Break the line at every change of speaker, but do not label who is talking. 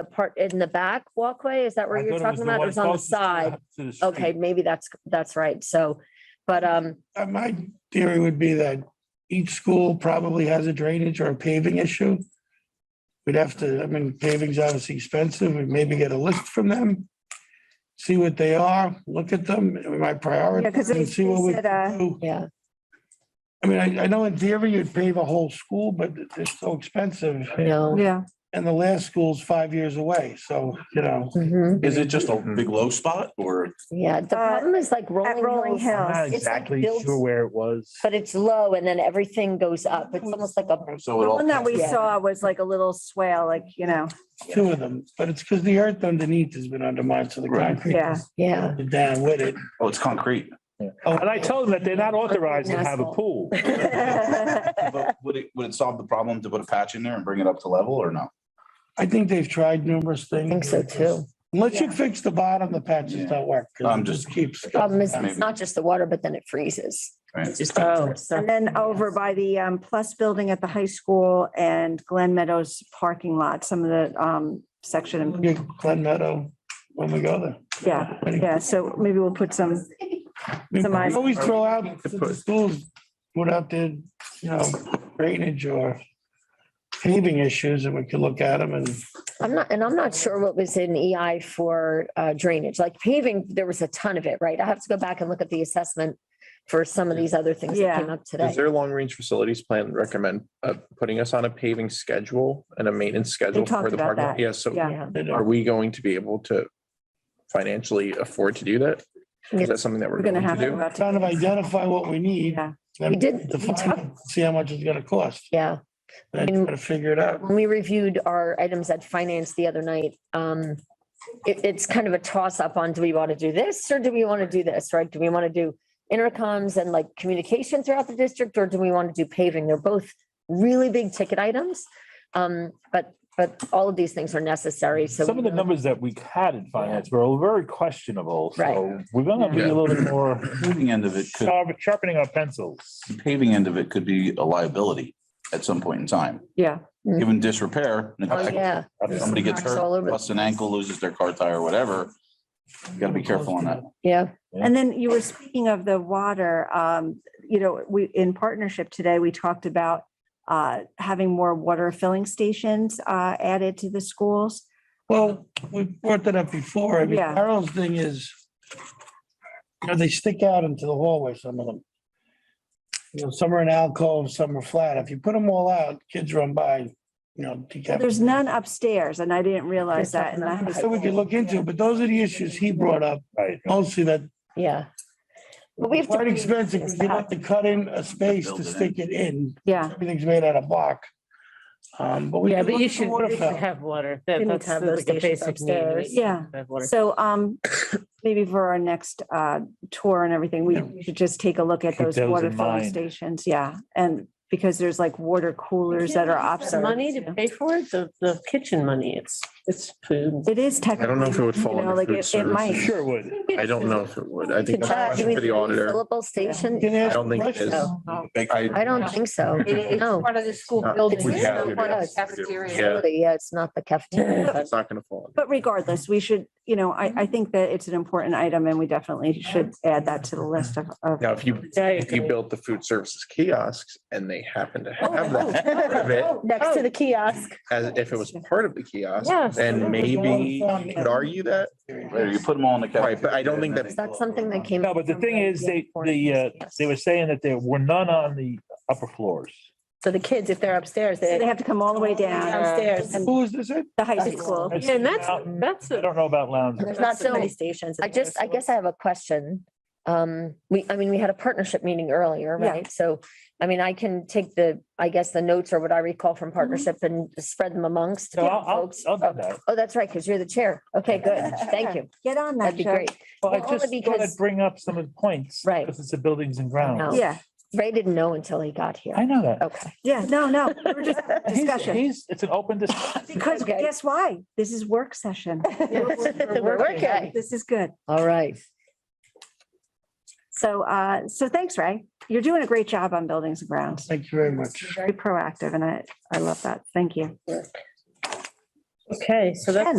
the part in the back walkway? Is that where
I
you're
thought it was
talking
the
about? It
one
was on the
closest to
side.
to the street.
Okay, maybe that's, that's right. So, but, um,
Uh, my theory would be that each school probably has a drainage or a paving issue. We'd have to, I mean, paving's obviously expensive, we'd maybe get a list from them. See what they are, look at them, we might
Yeah,
prioritize
'cause they-
and see what
they
we
said, uh,
can do.
yeah,
I mean, I, I know in theory you'd pave a whole school, but they're so expensive.
no.
Yeah,
And the last school's five years away, so, you know.
Mhm.
Is it just a big low spot or?
Yeah, the
Uh,
problem is like
Rolling
rolling hills,
Hill.
I'm not
It's like
exactly
built-
sure where it was.
but it's low and then everything goes up. It's almost like a,
So it
the
all.
one that we
Yeah.
saw was like a little swale, like, you know,
two of them, but it's because the earth underneath has been undermined, so the
Right.
concrete
Yeah.
is
yeah.
down with it.
Oh, it's concrete.
And I told them that they're not authorized to have a
Asphalt.
pool.
But would it, would it solve the problem to put a patch in there and bring it up to level or no?
I think they've tried numerous things.
think so too.
Unless you fix the bottom, the patches
Yeah.
don't work. 'cause
I'm
it
just-
Keeps.
Problem is, it's
Maybe.
not just the water, but then it freezes.
Right.
Oh,
and then over by the um, Plus Building at the high school and Glen Meadows parking lot, some of the um, section,
Yeah, Glen Meadow, when we go there.
yeah, yeah, so maybe we'll put some,
I mean,
Some
We
eyes.
always throw out, that the schools put out their, you know, drainage or paving issues and we could look at them and
I'm not, and I'm not sure what was in EI for uh, drainage, like paving, there was a ton of it, right? I have to go back and look at the assessment for some of these other things that
Yeah.
came up today.
Does their long-range facilities plan recommend uh, putting us on a paving schedule and a maintenance schedule
talked
for the
about
parking? lot?
that.
Yeah, so
yeah.
Yeah,
they
are
don't-
we going to be able to financially afford to do that?
Yeah.
Is that something that we're
We're gonna
going to
have to.
do?
go out
kind of
to-
identify what we need.
Yeah.
then
We did- we
define it, See how much it's gonna cost
yeah.
and then try to figure it out.
When we reviewed our items at finance the other night, um, it, it's kind of a toss up on, do we want to do this or do we want to do this, right? Do we want to do intercoms and like communication throughout the district or do we want to do paving? They're both really big ticket items. Um, but, but all of these things are necessary. So
Some of
we
the
know-
numbers that we had in finance were all very questionable, so
Right.
we're gonna be a little bit more
Paving end of it could,
sharp- sharpening our pencils.
the paving end of it could be a liability at some point in time,
Yeah,
given disrepair.
Mm-hmm. Oh,
neglect,
yeah.
if Somebody gets
Cracks all
hurt,
over the
busts an ankle, loses their car tire, whatever. You gotta be careful on that.
Yeah.
and then you were speaking of the water, um, you know, we, in partnership today, we talked about uh, having more water filling stations uh, added to the schools.
Well, we brought that up before. I mean,
Yeah.
Carol's thing is, you know, they stick out into the hallway, some of them. You know, some are in alcove, some are flat. If you put them all out, kids run by, you know. decap-
There's none upstairs and I didn't realize that. and I had to-
So we could look into, it, but those are the issues he brought up.
Right.
Mostly that
Yeah. But we have to.
quite expensive. 'cause You have to cut in a space
Build
to
it in.
stick it in.
Yeah,
Everything's made out of block. Um, but we.
Yeah,
could
but
look
you
at the
should,
water
you should
fountain.
have water.
You
That-
need to
That's
have those
like a
stations
basic need.
upstairs.
Yeah.
Have water.
so um, maybe for our next uh tour and everything, we we should just take a look at
Keep
those
those
water
in
filling
mind.
stations, yeah. And because there's like water coolers that are
The
obsolete.
Money to pay for it, the, the kitchen money, it's, it's food.
It is
know
technically.
if it would
you
fall
know,
under
like,
food
it- it might.
services.
Sure would.
I don't know if it would. I think that's a
Uh, do
question
we
for the
do
auditor.
Fillable
You
station?
can ask
I don't think it is.
questions.
I don't think so. No.
Part of the school
Not-
building.
we
it's
have
not part of the
to
do it.
cafeteria.
Yeah.
Yeah, it's not the cafeteria. but-
It's not going to fall.
But regardless, we should, you know, I I think that it's an important item and we definitely should add that to the list of of.
Now, if you,
I
if you
agree.
built the food services kiosks and they happen to have
Oh,
that part of it,
Next to the kiosk.
as if it was part of the
Oh.
kiosk,
Yes.
then maybe you could argue that.
Right, you put them all in the.
Right, but I don't think
cafeteria and then
Is
that's-
they
that
go
something
over.
that came?
No, but the
from
thing is, they, the, uh, they were saying that there were none on the upper floors.
So the kids, if they're upstairs,
So They
they.
have to come all the way down,
Downstairs.
And-
Who is this? in?
the high school.
That's
Yeah, and that's-
mountain.
that's a-
I don't know about lounge.
There's not so many
stations.
I just, I guess I have a question. Um, we, I mean, we had a partnership meeting earlier,
Yeah.
right? So, I mean, I can take the, I guess, the notes or what I recall from partnership and spread them amongst
So Mm-hmm. I'll, I'll,
folks.
I'll do that.
Oh, that's right, because you're the chair. Okay, good. Thank you.
Get on that,
That'd be
Joe.
great.
Well, I
Well, only
just thought
because-
I'd bring up some of the points.
Right.
Because it's the buildings and
No.
grounds.
Yeah,
Ray didn't know until he got here.
I know that.
Okay.
yeah, no, no, we we're just
He's-
discussion.
He's, it's an open discussion.
Because
Okay.
guess why? This is work session.
We're working.
This is good.
All right.
So, uh, so thanks, Ray. You're doing a great job on buildings and grounds.
Thank you very much.
Very proactive and I, I love that. Thank you.
Okay, so that's.